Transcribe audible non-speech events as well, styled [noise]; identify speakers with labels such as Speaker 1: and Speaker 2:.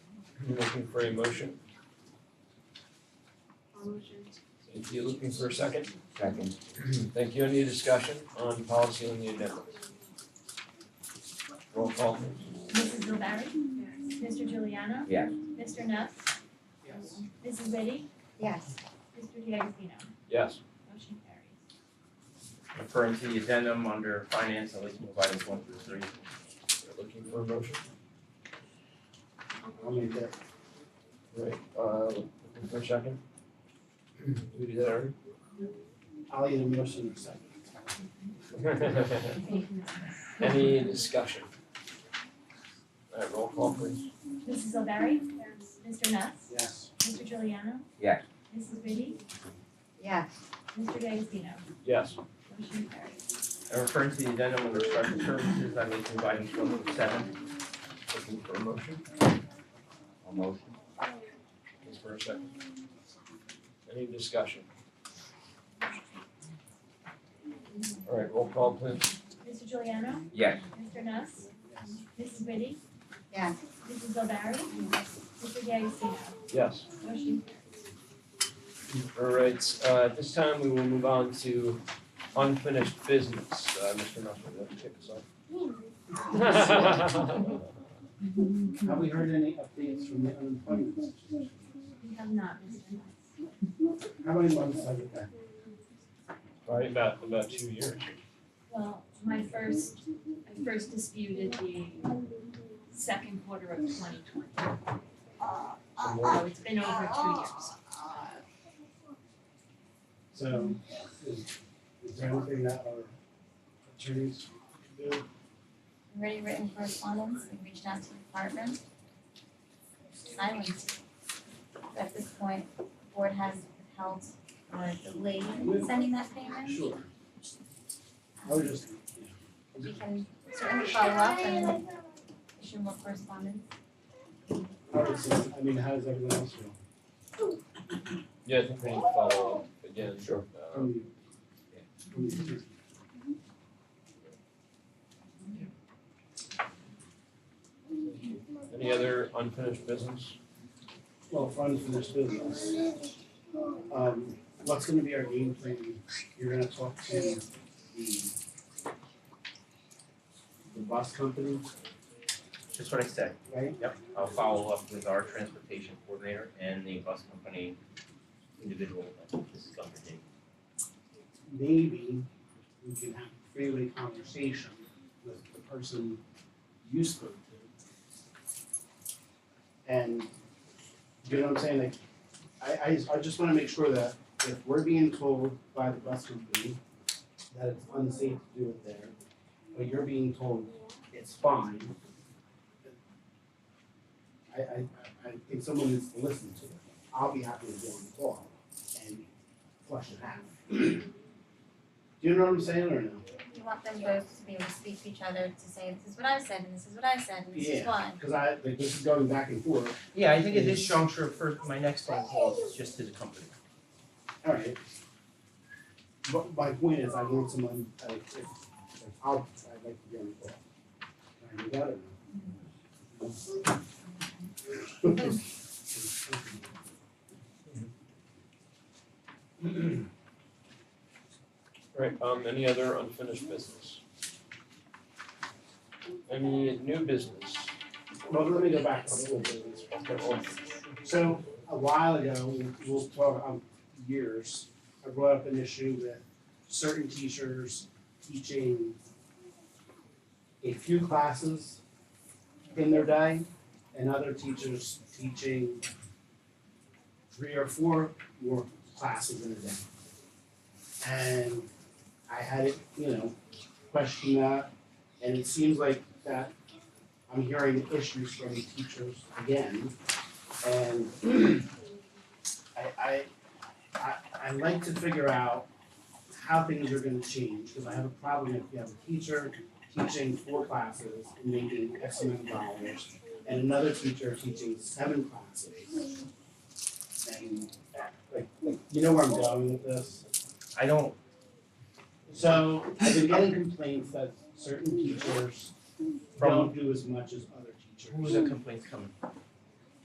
Speaker 1: you looking for a motion?
Speaker 2: Motion.
Speaker 1: If you're looking for a second?
Speaker 3: Second.
Speaker 1: Thank you. Any discussion on policy on the agenda? Roll call.
Speaker 4: Mrs. O'Barry? Mr. Juliano?
Speaker 3: Yes.
Speaker 4: Mr. Nuss? Yes. Mrs. Liddy?
Speaker 2: Yes.
Speaker 4: Mr. D'Agostino?
Speaker 1: Yes.
Speaker 4: Motion carries.
Speaker 3: Referring to the addendum under finance, I'd like to move items one through three.
Speaker 1: You're Looking for a motion?
Speaker 2: I'll
Speaker 1: make that. Right, uh, looking for a second? Who did that already?
Speaker 5: I'll either motion or second.
Speaker 1: [laughs] Any discussion? Alright, roll call please.
Speaker 4: Mrs. O'Barry? Mr. Nuss?
Speaker 5: Yes.
Speaker 4: [laughs] Mr. Juliano?
Speaker 3: Yes.
Speaker 4: Mrs. Liddy?
Speaker 2: Yes.
Speaker 4: Mr. D'Agostino?
Speaker 1: Yes.
Speaker 4: Motion carries.
Speaker 3: And referring to the addendum under special services, I'd like to move items one through seven.
Speaker 1: Looking for a motion?
Speaker 3: A motion.
Speaker 1: Looking for a second? Any discussion? Alright, roll call please.
Speaker 4: Mr. Juliano?
Speaker 3: Yes.
Speaker 4: Mr. Nuss? Mrs. Liddy?
Speaker 2: Yes.
Speaker 4: Mrs. O'Barry? Mr. D'Agostino?
Speaker 1: Yes.
Speaker 4: Motion
Speaker 1: Alright, uh, at this time we will move on to unfinished business. Uh, Mr. Nussel, would you kick us off?
Speaker 5: [laughs] Have we heard any updates from the unemployment situation?
Speaker 4: we have not, Mr. Nuss.
Speaker 5: How many months have it been?
Speaker 1: Probably about, about two years.
Speaker 6: Well, my first, I first disputed the second quarter of twenty twenty,
Speaker 1: Some more.
Speaker 6: so it's been over two years.
Speaker 5: So is, is there anything that our attorneys can do?
Speaker 2: Already written correspondence, we reached out to the department. Silence. At this point, the board has held or delayed sending that payment.
Speaker 5: Sure. I was just,
Speaker 2: We can certainly follow up and issue more correspondence.
Speaker 5: I would say, I mean, how does everyone else feel?
Speaker 1: Yeah, I think we need to follow up again.
Speaker 3: Sure.
Speaker 1: Um,
Speaker 5: From the- from the-
Speaker 1: Any other unfinished business?
Speaker 5: Well, funds for this business. Um, what's gonna be our game plan? You're gonna talk to the the bus company,
Speaker 3: Just what I said.
Speaker 5: right?
Speaker 3: Yep. I'll follow up with our transportation coordinator and the bus company individual that this is going to be.
Speaker 5: Maybe we can have a freeway conversation with the person you spoke to. And, you know what I'm saying, like, I, I, just- I just wanna make sure that if we're being told by the bus company that it's unsafe to do it there, but you're being told it's fine. I, I, I think someone needs to listen to it. I'll be happy to go on the call and flush it out. Do you know what I'm saying or no?
Speaker 2: You want them both to be able to speak to each other to say, this is what I said, and this is what I said, and this is
Speaker 5: Yeah.
Speaker 2: why.
Speaker 5: Cause I, like, this is going back and forth.
Speaker 3: Yeah, I think at this juncture, first, my next phone call is just to the company.
Speaker 5: Alright. But my point is, I want someone, like, if, if I'll, I'd like to be on the call. Can I do that or no?
Speaker 1: Right, um, any other unfinished business? Any new business?
Speaker 5: [laughs] Well, let me go back a little bit. So a while ago, we'll talk, um, years, I brought up an issue with certain teachers teaching a few classes in their day and other teachers teaching three or four more classes in a day. And I had it, you know, question that, and it seems like that I'm hearing issues from teachers again. And [clears throat] I, I, I, I like to figure out how things are gonna change, because I have a problem if you have a teacher teaching four classes and making X amount of dollars, and another teacher teaching seven classes. And, uh, like, like, you know where I'm going with this?
Speaker 3: I don't,
Speaker 5: So I've been getting complaints that certain teachers
Speaker 3: From-
Speaker 5: don't do as much as other teachers.
Speaker 3: who's the complaints coming?